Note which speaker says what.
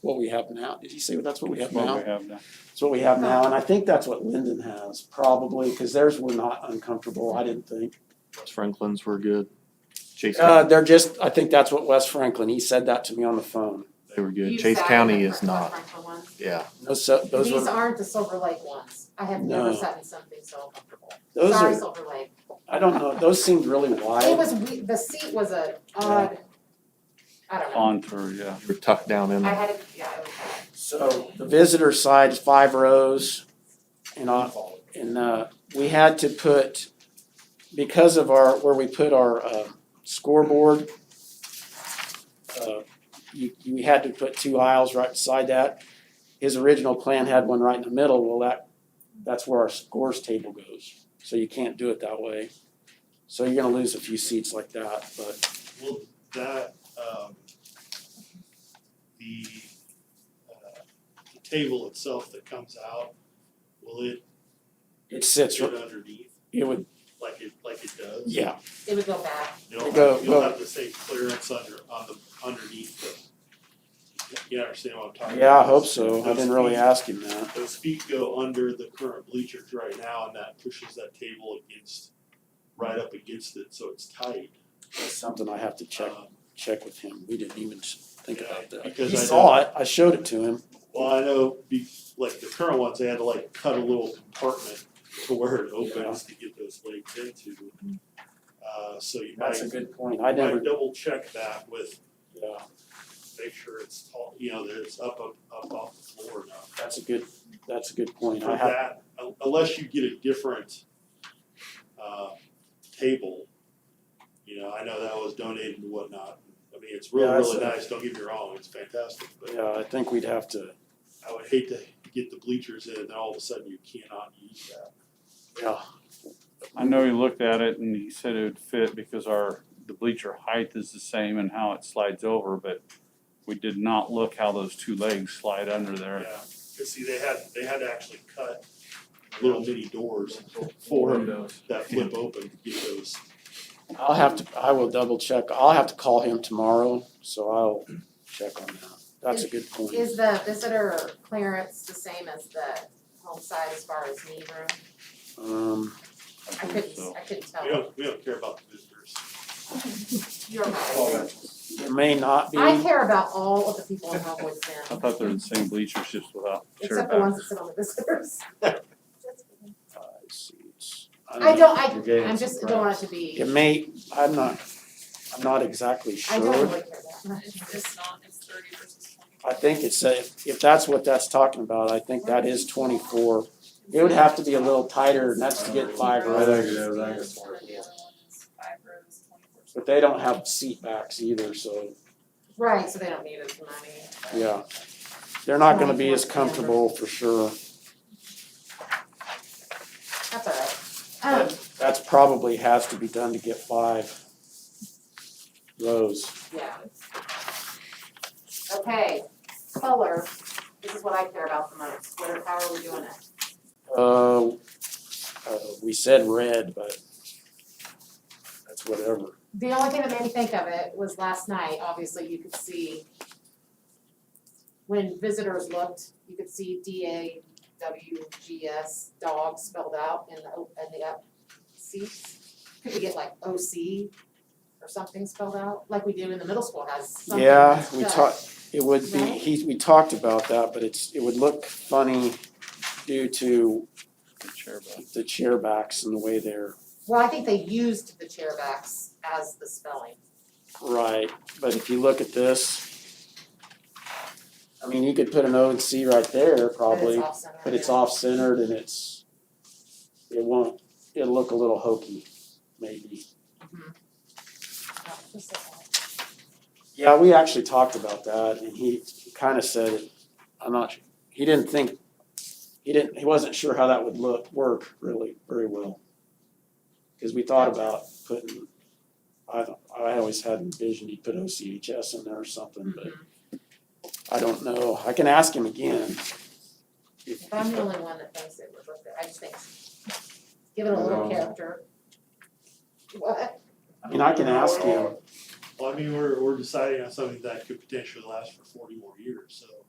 Speaker 1: what we have now. Did he say that's what we have
Speaker 2: What
Speaker 1: now?
Speaker 2: we have now.
Speaker 1: It's what we have now, and I think that's what Linden has probably, cause theirs were not uncomfortable, I didn't think.
Speaker 3: West Franklin's were good. Chase
Speaker 1: Uh,
Speaker 3: County,
Speaker 1: they're just, I think that's what Wes Franklin, he said that to me on the phone.
Speaker 3: they were good.
Speaker 4: You
Speaker 3: Chase
Speaker 4: sat
Speaker 3: County
Speaker 4: in the
Speaker 3: is
Speaker 4: front-
Speaker 3: not.
Speaker 4: front one.
Speaker 3: Yeah.
Speaker 1: Those, so- those
Speaker 4: These
Speaker 1: were,
Speaker 4: aren't the Silver Lake ones. I have never
Speaker 1: No.
Speaker 4: sat in something so uncomfortable.
Speaker 1: those
Speaker 4: Sorry,
Speaker 1: are,
Speaker 4: Silver Lake.
Speaker 1: I don't know, those seemed really
Speaker 4: It
Speaker 1: wide.
Speaker 4: was, we- the seat was a odd, I don't know.
Speaker 2: On for, yeah.
Speaker 3: You were tucked down in
Speaker 4: I
Speaker 3: there.
Speaker 4: had, a- yeah, it was bad.
Speaker 1: So the visitor side is five rows and on, and uh, we had to put, because of our, where we put our uh, scoreboard, uh, you, you had to put two aisles right beside that. His original plan had one right in the middle, well, that, that's where our scores table goes, so you can't do it that way. So you're gonna lose a few seats like that, but
Speaker 5: Will that, um, the, uh, the table itself that comes out, will it
Speaker 1: it sits,
Speaker 5: sit underneath
Speaker 1: it would,
Speaker 5: like it, like it does?
Speaker 1: yeah,
Speaker 4: It would go back.
Speaker 5: You'll
Speaker 1: Go-
Speaker 5: have,
Speaker 1: go.
Speaker 5: you'll have the same clearance under, on the, underneath the, you understand what I'm talking about?
Speaker 1: yeah, I hope so, I
Speaker 5: Those
Speaker 1: didn't really
Speaker 5: feet-
Speaker 1: ask him that.
Speaker 5: Those feet go under the current bleachers right now and that pushes that table against, right up against it, so it's tight.
Speaker 1: That's something I have to check,
Speaker 5: Um,
Speaker 1: check with him, we didn't even think
Speaker 5: Yeah,
Speaker 1: about that.
Speaker 5: because
Speaker 1: He
Speaker 5: I know-
Speaker 1: saw it, I showed it to him.
Speaker 5: Well, I know, be, like the current ones, they had to like cut a little compartment to where it opens to get those legs into. Uh, so you might,
Speaker 1: That's a good point, I
Speaker 5: you might
Speaker 1: never,
Speaker 5: double check that with,
Speaker 1: yeah,
Speaker 5: make sure it's tall, you know, that it's up, up, up off the floor enough.
Speaker 1: that's a good, that's a good point,
Speaker 5: For
Speaker 1: I have,
Speaker 5: that, un- unless you get a different, uh, table, you know, I know that was donated and whatnot. I mean, it's really,
Speaker 1: Yeah, that's
Speaker 5: really
Speaker 1: a-
Speaker 5: nice, don't get me wrong, it's fantastic, but
Speaker 1: yeah, I think we'd have to,
Speaker 5: I would hate to get the bleachers in and all of a sudden you cannot use that.
Speaker 1: yeah,
Speaker 2: I know he looked at it and he said it would fit because our, the bleacher height is the same and how it slides over, but we did not look how those two legs slide under there.
Speaker 5: Yeah, cause see, they had, they had to actually cut little mini doors for that flip open to get those.
Speaker 1: I'll have to, I will double check, I'll have to call him tomorrow, so I'll check on that, that's a good point.
Speaker 4: Is the visitor clearance the same as the home side as far as knee room?
Speaker 1: Um,
Speaker 4: I
Speaker 2: believe
Speaker 4: couldn't,
Speaker 2: so.
Speaker 4: I couldn't
Speaker 5: We
Speaker 4: tell.
Speaker 5: don't, we don't care about the visitors.
Speaker 4: You're right.
Speaker 1: there may not be,
Speaker 4: I care about all of the people in Homewood
Speaker 2: I
Speaker 4: Center,
Speaker 2: thought they were the same bleachers, just without chair
Speaker 4: except the ones that
Speaker 2: backs.
Speaker 4: sit on the visitors.
Speaker 1: five seats.
Speaker 4: I don't, I,
Speaker 6: You're getting
Speaker 4: I'm just, don't want it to be,
Speaker 1: It may, I'm not, I'm not exactly
Speaker 4: I don't
Speaker 1: sure,
Speaker 4: really care that much.
Speaker 7: It's it's not, it's thirty versus twenty.
Speaker 1: I think it's, a- if that's what that's talking about, I think that is twenty-four. It would have to be a little tighter, and that's to get five
Speaker 6: I
Speaker 1: rows,
Speaker 6: think it is, I think it's
Speaker 7: And then the other one is five rows, twenty-four.
Speaker 1: but they don't have seat backs either, so,
Speaker 4: Right, so they don't need as money.
Speaker 1: yeah. They're not gonna be as comfortable for sure.
Speaker 4: That's all right. Um,
Speaker 1: That's probably has to be done to get five rows.
Speaker 4: yeah. Um, Okay, color, this is what I care about the most. What, are- how are we doing it?
Speaker 1: Uh, uh, we said red, but that's whatever.
Speaker 4: The only thing that made me think of it was last night, obviously you could see when visitors looked, you could see D A W G S dog spelled out in the, o- in the up seats. Could we get like O C or something spelled out, like we do in the middle school has something
Speaker 1: Yeah,
Speaker 4: that's
Speaker 1: we
Speaker 4: spelled.
Speaker 1: talked, it would be,
Speaker 4: Right?
Speaker 1: he, we talked about that, but it's, it would look funny due to
Speaker 2: The chair back.
Speaker 1: the chair backs and the way they're
Speaker 4: Well, I think they used the chair backs as the spelling.
Speaker 1: Right, but if you look at this, I mean, you could put an O and C right there probably,
Speaker 4: But it's off-center.
Speaker 1: but it's
Speaker 4: yeah.
Speaker 1: off-centered and it's, it won't, it'll look a little hokey, maybe.
Speaker 4: Mm-hmm. Yeah, just like that.
Speaker 1: Yeah, we actually talked about that and he kind of said, it- I'm not, su- he didn't think, he didn't, he wasn't sure how that would look, work really very well. Cause we thought about putting, I, don't- I always had envisioned he'd put OCHS in there or something, but
Speaker 4: Mhm.
Speaker 1: I don't know, I can ask him again.
Speaker 4: If I'm the only one that thinks it would look good, I just think, give it a
Speaker 6: No.
Speaker 4: little character. What?
Speaker 1: I mean, I can ask him,
Speaker 5: Well, I mean, we're, we're deciding on something that could potentially last for forty more years, so